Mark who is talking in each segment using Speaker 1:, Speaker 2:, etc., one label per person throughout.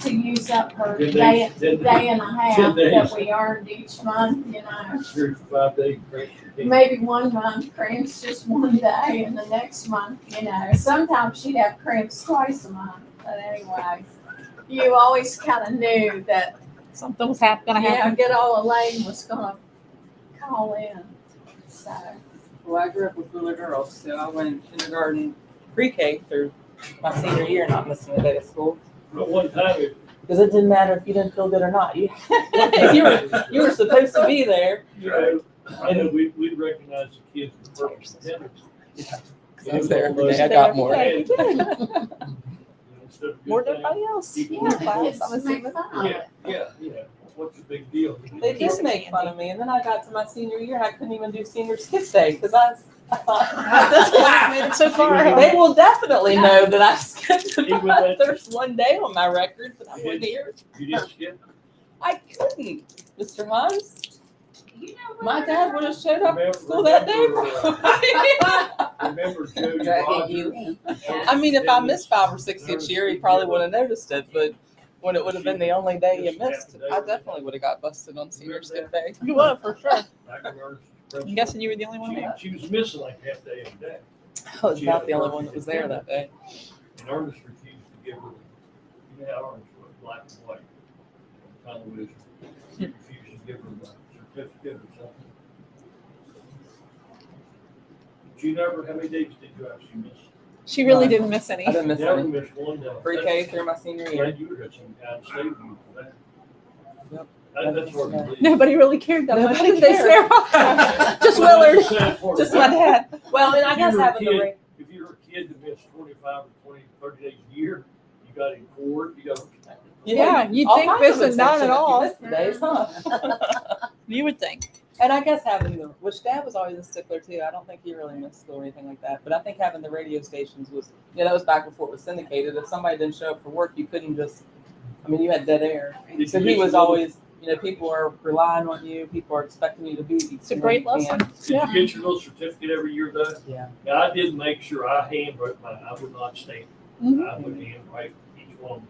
Speaker 1: to use up her
Speaker 2: Did
Speaker 1: day,
Speaker 2: they, did they,
Speaker 1: day and a half
Speaker 2: Ten
Speaker 1: that
Speaker 2: days.
Speaker 1: we earned each month, you know.
Speaker 2: your five day break?
Speaker 1: Maybe one month cramps just one day and the next month, you know, sometimes she'd have cramps twice a month, but anyway. You always kind of knew that,
Speaker 3: Something was hap- gonna
Speaker 1: yeah,
Speaker 3: happen.
Speaker 1: good old Elaine was gonna call in, so.
Speaker 4: Well, I grew up with little girls, so I went kindergarten, pre-K through my senior year, not missing a day of school.
Speaker 2: But one time, it-
Speaker 4: Because it didn't matter if you didn't feel good or not. You, you were, you were supposed to be there.
Speaker 2: you know, I know we, we recognize the kids with perfect attendance.
Speaker 4: I was there every day.
Speaker 3: I got more.
Speaker 2: It was almost- Instead of good
Speaker 3: More than
Speaker 2: thing.
Speaker 3: anybody else.
Speaker 2: Yeah,
Speaker 1: Yeah, the
Speaker 3: Class,
Speaker 1: kids
Speaker 3: I was
Speaker 1: make
Speaker 3: in-
Speaker 1: fun of
Speaker 2: Yeah,
Speaker 1: it.
Speaker 2: yeah, yeah, what's the big deal?
Speaker 4: They did make fun of me, and then I got to my senior year, and I couldn't even do senior skip day because I, was- I thought
Speaker 3: That's why I made it so far.
Speaker 4: they will definitely know that I skipped.
Speaker 2: Even that-
Speaker 4: There's one day on my record that I wasn't here.
Speaker 2: You didn't skip?
Speaker 4: I couldn't, Mr. Mons.
Speaker 1: You know
Speaker 4: My
Speaker 1: what?
Speaker 4: dad would have showed up
Speaker 2: Remember-
Speaker 4: at school that day.
Speaker 2: remember,
Speaker 4: probably.
Speaker 2: uh, Remember Jody
Speaker 5: Dragging
Speaker 2: Rogers?
Speaker 5: you in.
Speaker 1: Yeah.
Speaker 4: I mean, if I missed five or six each year, he probably would have noticed it, but when it would have been the only day you missed, I definitely would have got busted on senior skip day.
Speaker 3: You were for sure.
Speaker 2: Back in our-
Speaker 3: I'm guessing you were the only one there.
Speaker 2: She she was missing like half day of the day,
Speaker 4: I was about the only one that was there that day.
Speaker 2: and Ernest refused to give her, you know, how Ernest was black and white. Kind of was, he refused to give her the certificate or something. Did you never, how many days did you actually miss?
Speaker 3: She really
Speaker 4: No.
Speaker 3: didn't miss any.
Speaker 4: I didn't miss
Speaker 2: Never
Speaker 4: any.
Speaker 2: missed one day.
Speaker 4: Pre-K through my senior year.
Speaker 2: Glad you were at some kind of state meeting for that.
Speaker 4: Yep.
Speaker 2: That- That's what I believe.
Speaker 3: Nobody really cared that much.
Speaker 4: Nobody
Speaker 3: did they,
Speaker 4: cared.
Speaker 3: Sarah?
Speaker 2: Well,
Speaker 3: Just
Speaker 2: that's
Speaker 3: Willard.
Speaker 2: the sad part
Speaker 4: Just my
Speaker 2: about it.
Speaker 4: dad. Well, and I
Speaker 2: If
Speaker 4: guess
Speaker 2: you were a
Speaker 4: having the
Speaker 2: kid-
Speaker 4: ring.
Speaker 2: If you're a kid that missed twenty-five or 20, 30 days a year, you got in court, you got.
Speaker 3: Yeah, you'd
Speaker 4: All
Speaker 3: think
Speaker 4: kinds
Speaker 3: this
Speaker 4: of
Speaker 3: is not at
Speaker 4: exemptions if you
Speaker 3: all.
Speaker 4: missed the days, huh?
Speaker 3: You would think.
Speaker 4: And I guess having the, which dad was always a stickler too. I don't think he really missed school or anything like that. But I think having the radio stations was, you know, that was back before it was syndicated. If somebody didn't show up for work, you couldn't just, I mean, you had dead air.
Speaker 2: Did
Speaker 4: So
Speaker 2: you
Speaker 4: he
Speaker 2: miss
Speaker 4: was
Speaker 2: a little-
Speaker 4: always, you know, people are relying on you. People are expecting you to be.
Speaker 3: It's a great lesson.
Speaker 2: Did you get your little certificate every year though?
Speaker 4: Yeah.
Speaker 2: Now, I did make sure I handwrote my, I would not stamp.
Speaker 4: Mm-hmm.
Speaker 3: Mhm.
Speaker 2: I would handwrite each one.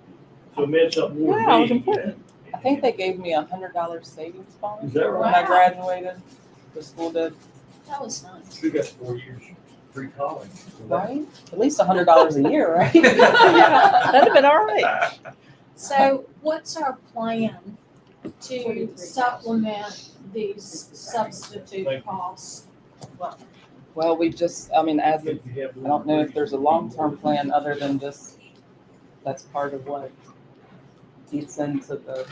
Speaker 2: So it meant something more
Speaker 3: Yeah, it
Speaker 2: to
Speaker 3: was
Speaker 2: me.
Speaker 3: important.
Speaker 2: than-
Speaker 4: I think they gave me a hundred dollar savings bond
Speaker 2: Is that
Speaker 4: when
Speaker 2: right?
Speaker 4: I
Speaker 1: Wow.
Speaker 4: graduated. The school did,
Speaker 1: That was nice.
Speaker 2: We got four years free college.
Speaker 4: right? At least a hundred dollars a year, right?
Speaker 3: That'd have been all right.
Speaker 1: So what's our plan to supplement these substitute costs?
Speaker 4: Well, we just, I mean, as
Speaker 2: If
Speaker 4: of
Speaker 2: you have
Speaker 4: I don't know if there's a long-term plan other than just, that's part of what eats into the,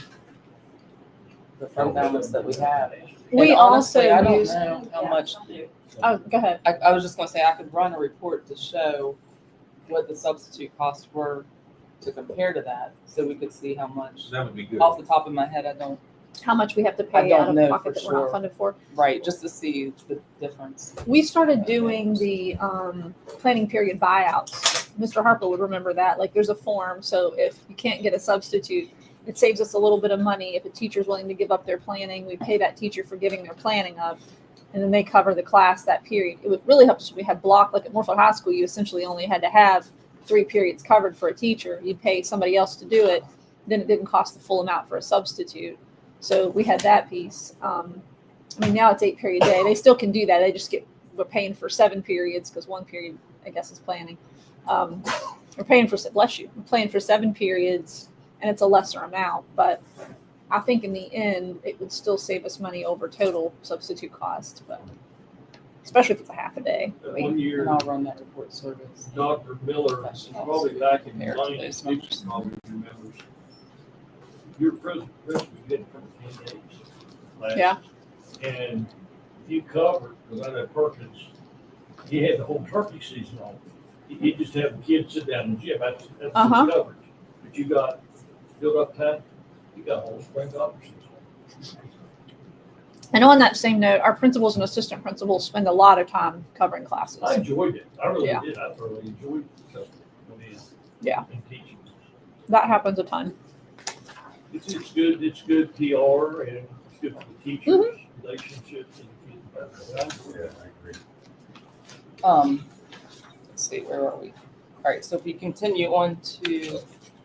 Speaker 4: the fund balance that we have. And
Speaker 3: We
Speaker 4: honestly,
Speaker 3: also
Speaker 4: I don't
Speaker 3: use-
Speaker 4: know How much,
Speaker 3: Oh, go ahead.
Speaker 4: I, I was just gonna say, I could run a report to show what the substitute costs were to compare to that, so we could see how much.
Speaker 6: That would be good.
Speaker 4: Off the top of my head, I don't,
Speaker 3: How much we have to
Speaker 4: I
Speaker 3: pay
Speaker 4: don't
Speaker 3: out
Speaker 4: know
Speaker 3: of pocket
Speaker 4: for
Speaker 3: that we're not
Speaker 4: sure.
Speaker 3: funded for.
Speaker 4: right, just to see the difference.
Speaker 3: We started doing the um, planning period buyouts. Mr. Harper would remember that. Like, there's a form, so if you can't get a substitute, it saves us a little bit of money. If a teacher's willing to give up their planning, we pay that teacher for giving their planning up, and then they cover the class that period. It would really help us if we had block, like at Morpho High School, you essentially only had to have three periods covered for a teacher. You'd pay somebody else to do it, then it didn't cost the full amount for a substitute. So we had that piece. Um, I mean, now it's eight period day. They still can do that. They just get we're paying for seven periods because one period, I guess, is planning. Um, we're paying for, se- bless you, we're paying for seven periods and it's a lesser amount, but I think in the end, it would still save us money over total substitute cost, but especially if it's a half a day. I mean,
Speaker 2: One year,
Speaker 4: And I'll run that report service.
Speaker 2: Dr. Miller, probably back in the nineties, he probably remembers. Your pres- press was good for ten days. last.
Speaker 3: Yeah.
Speaker 2: And you covered, because I know Perkins, he had the whole turkey season on. He, he just had the kids sit down in the gym, that's, that's
Speaker 3: Uh-huh.
Speaker 2: his coverage. But you got filled up time, you got whole spring options.
Speaker 3: And on that same note, our principals and assistant principals spend a lot of time covering classes.
Speaker 2: I enjoyed it, I really
Speaker 3: Yeah.
Speaker 2: did, I thoroughly enjoyed it, so, I mean,
Speaker 3: Yeah.
Speaker 2: And teaching.
Speaker 3: That happens a ton.
Speaker 2: It's, it's good, it's good PR and it's good for the teachers, relationships and the kids.
Speaker 6: Yeah, I agree.
Speaker 4: Um, let's see, where are we? All right, so if we continue on to